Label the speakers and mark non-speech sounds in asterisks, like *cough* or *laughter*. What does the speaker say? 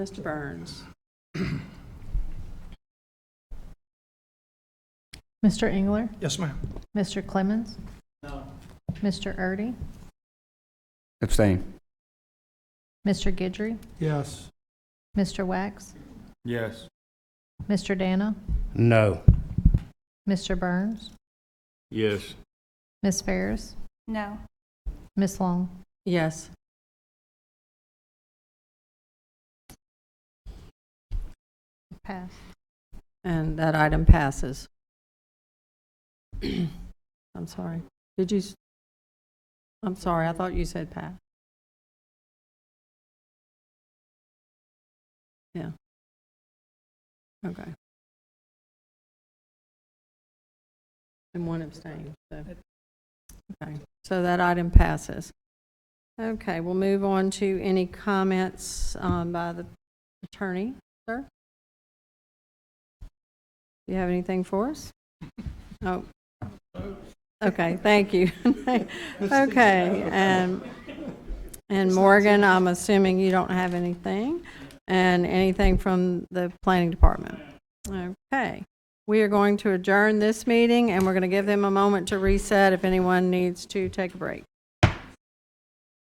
Speaker 1: Mr. Burns.
Speaker 2: Mr. Engler?
Speaker 3: Yes, ma'am.
Speaker 2: Mr. Clemmons? No. Mr. Erdy?
Speaker 4: Abstain.
Speaker 2: Mr. Gidry?
Speaker 3: Yes.
Speaker 2: Mr. Wax?
Speaker 3: Yes.
Speaker 2: Mr. Dana?
Speaker 4: No.
Speaker 2: Mr. Burns?
Speaker 3: Yes.
Speaker 2: Ms. Ferris?
Speaker 5: No.
Speaker 2: Ms. Long?
Speaker 1: Yes.
Speaker 2: Pass.
Speaker 1: And that item passes. *clears throat* I'm sorry. Did you, s- I'm sorry, I thought you said pass. Yeah. Okay. And one abstain, so. Okay, so that item passes. Okay, we'll move on to any comments um, by the attorney. Do you have anything for us? Oh. Okay, thank you. *laughs* Okay, and, and Morgan, I'm assuming you don't have anything, and anything from the planning department? Okay, we are going to adjourn this meeting, and we're going to give them a moment to reset if anyone needs to take a break.